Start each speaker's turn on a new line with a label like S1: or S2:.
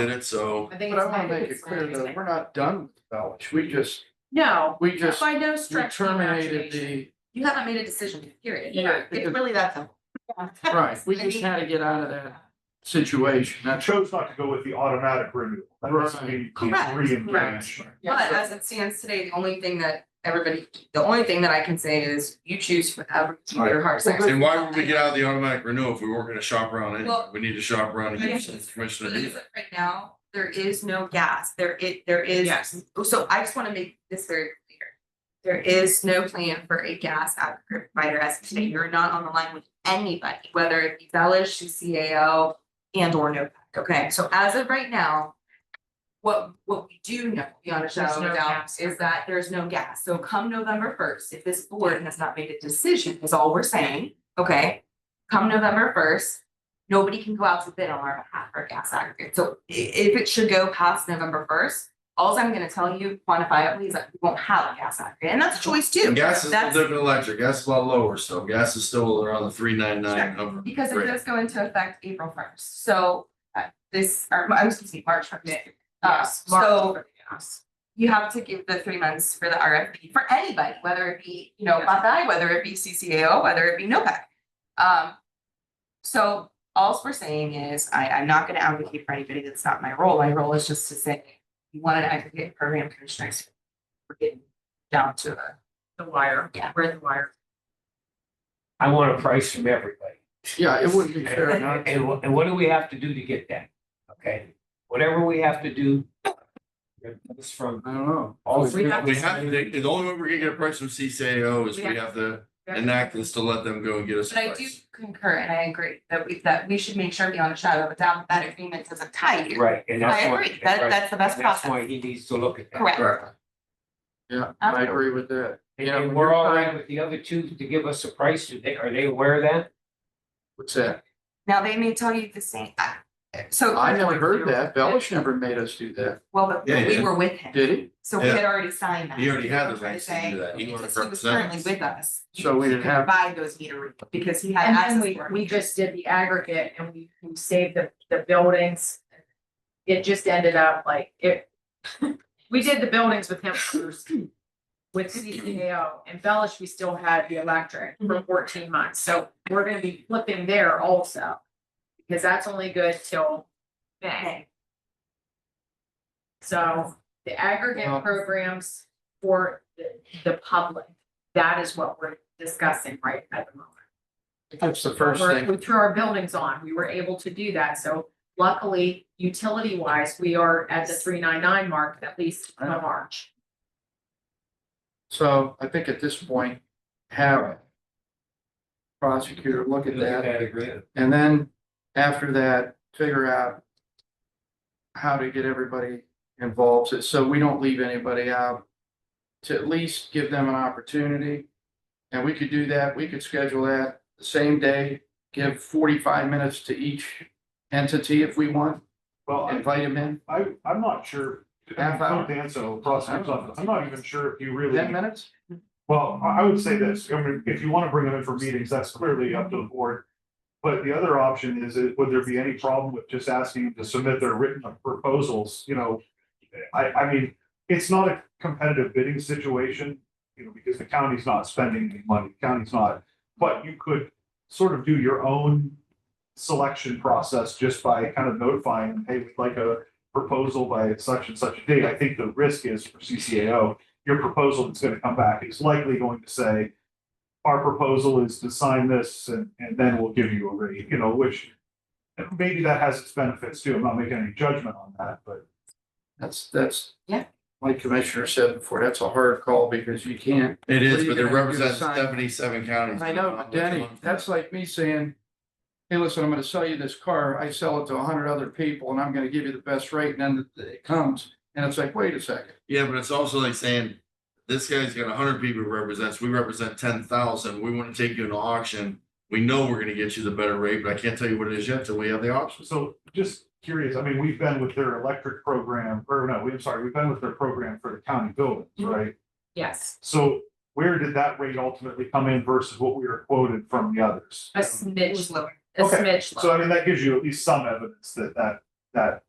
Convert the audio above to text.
S1: did it, so.
S2: I think
S3: But I
S2: it's
S3: wanna
S2: nice.
S3: make it
S2: It's
S3: clear
S2: nice.
S3: that we're not done with Bellish, we just,
S2: No,
S3: we just,
S2: by no
S3: we
S2: stretch. of the
S3: terminated
S2: imagination.
S3: the,
S2: You haven't made a decision, period.
S3: Yeah,
S2: It's
S3: because-
S2: really that simple.
S3: right, we just had to get out of that situation,
S4: I
S3: that's.
S4: chose not to go with the automatic renewal. That doesn't mean we
S2: Correct,
S4: re-engage.
S2: But as it stands today, the only thing that everybody, the only thing that I can say is you choose whatever your heart says.
S3: Right.
S1: And why would we get out of the automatic renewal if we weren't gonna shop around anyway?
S2: Well-
S1: We need to shop around and get some
S2: Yes.
S1: commissioner
S2: But
S1: to
S2: as of Right now, there is no gas, there it, there is.
S5: Yes.
S2: So I just wanna make this very clear. There is no plan for a gas aggregator provider as of today, you're not on the line with anybody, whether it be Bellish, CCAO. And or NOPEC, okay, so as of right now. What what we do know beyond a shadow of
S5: There's
S2: a
S5: no
S2: doubt
S5: gas.
S2: is that there's no gas, so come November first, if this board has not made a decision, is all we're saying, okay? Come November first, nobody can go out to bid on our behalf for gas aggregate, so i- if it should go past November first. Alls I'm gonna tell you quantifiably is that we won't have a gas aggregate, and that's a choice too.
S1: And gas is
S2: That's-
S1: different than electric, gas is a lot lower, so gas is still around the three nine nine upper.
S2: Um, Because it
S1: rate.
S2: does go into effect April first, so uh, this, or, I'm excuse me, March first. Uh,
S5: Yes, Mark,
S2: so
S5: yes.
S2: you have to give the three months for the RFP for anybody, whether it be, you know, Buckeye, whether it be CCAO, whether it be NOPEC. Um, so alls we're saying is, I, I'm not gonna advocate for anybody, that's not my role, my role is just to say, you want an aggregate program commissioners. We're getting down to a.
S5: The wire.
S2: Yeah.
S5: We're the wire.
S6: I want a price from everybody.
S3: Yeah, it wouldn't be fair not
S6: And,
S3: to.
S6: and what- and what do we have to do to get that? Okay, whatever we have to do. It's from
S3: I don't know.
S6: all
S5: We
S6: three.
S5: have
S1: We have, the, the only way we're gonna get a price from CCAO is we
S5: Yeah.
S1: have to enact this to let them go and get us a
S2: But I
S1: price.
S2: do concur and I agree that we, that we should make sure beyond a shadow of a doubt that agreement doesn't tie you.
S6: Right, and
S2: I
S6: that's why.
S2: agree, that,
S6: right,
S2: that's the best
S6: and That's why
S2: process,
S6: he needs to look at that.
S2: correct.
S1: Correct.
S3: Yeah, I agree with that.
S6: And-
S3: Yeah,
S6: And
S3: when
S6: we're
S3: you're
S6: all
S3: signing-
S6: right with the other two to give us a price. Do they, are they aware of that?
S3: What's that?
S2: Now, they may tell you the same, I- so.
S3: I never heard that. Bellish never made us do that,
S2: Well, but
S1: Yeah,
S2: we
S1: yeah.
S2: were with him,
S3: did he?
S2: so we
S1: Yeah.
S2: had already signed that.
S1: He already had the
S2: That's what I'm
S1: rights to
S2: saying.
S1: do that. He
S2: He
S1: wanted
S2: was
S1: to
S2: he was currently
S1: represent
S2: with us.
S3: So we didn't
S2: He could
S3: have-
S2: Buy those meter readers because he had
S5: And
S2: access
S5: then
S2: to
S5: we,
S2: them.
S5: we just did the aggregate and we, we saved the, the buildings. It just ended up like it, we did the buildings with him first. With CCAO and Bellish, we still had the electric
S2: Mm-hmm.
S5: for fourteen months, so we're gonna be flipping there also. Because that's only good till May,
S2: Okay.
S5: so the
S3: Well-
S5: aggregate programs for the, the public. That is what we're discussing right at the moment
S3: That's the first
S5: we're-
S3: thing.
S5: We threw our buildings on, we were able to do that, so luckily, utility wise, we are at the three nine nine mark, at least in
S3: Right.
S5: March.
S3: So I think at this point, have prosecutor look at
S6: Look at
S3: that
S6: that agreement.
S3: and then after that, figure out how to get everybody involved, so- so we don't leave anybody out. To at least give them an opportunity. And we could do that, we could schedule that the same day, give forty-five minutes to each entity if we want,
S4: Well, I-
S3: invite them in,
S4: I, I'm not sure.
S3: Half hour.
S4: Danzo, prosecutor's office, I'm not even sure if you
S3: ten
S4: really,
S3: minutes?
S4: well, I, I would say this, I mean, if you want to bring them in for meetings, that's clearly up to the board. But the other option is, it- would there be any problem with just asking them to submit their written proposals, you know? I, I mean, it's not a competitive bidding situation, you know, because the county's not spending any money, the county's not. But you could sort of do your own selection process just by kind of notifying, them, hey, we'd like a proposal by such and such a date. I think the risk is for CCAO, your proposal that's gonna come back is likely going to say, our proposal is to sign this and, and then we'll give you a rate, you know, which maybe that has its benefits too. I'm not making any judgment on that, but
S3: That's, that's.
S2: Yeah.
S3: Like Commissioner said before, that's a hard call because you can't.
S1: It
S3: What are
S1: is,
S3: you
S1: but it
S3: gonna do,
S1: represents
S3: sign-
S1: seventy-seven counties.
S3: I know, but Danny, that's like me saying, hey, listen, I'm gonna sell you this car, I sell it to a hundred other people and I'm gonna give you the best rate, and then it comes, and it's like, wait a second.
S1: Yeah, but it's also like saying, this guy's got hundred people he represents, we represent ten thousand, we wanna take you into auction. We know we're gonna get you the better rate, but I can't tell you what it is yet till we have the auction.
S4: so just curious, I mean, we've been with their electric program, or no, I'm sorry, we've been with their program for the county buildings, right?
S5: Yes,
S4: So where did that rate ultimately come in versus what we were quoted from the others?
S5: a
S2: It was
S5: smidge,
S2: lower.
S5: a
S4: Okay,
S5: smidge.
S4: So I mean, that gives you at least some evidence that that that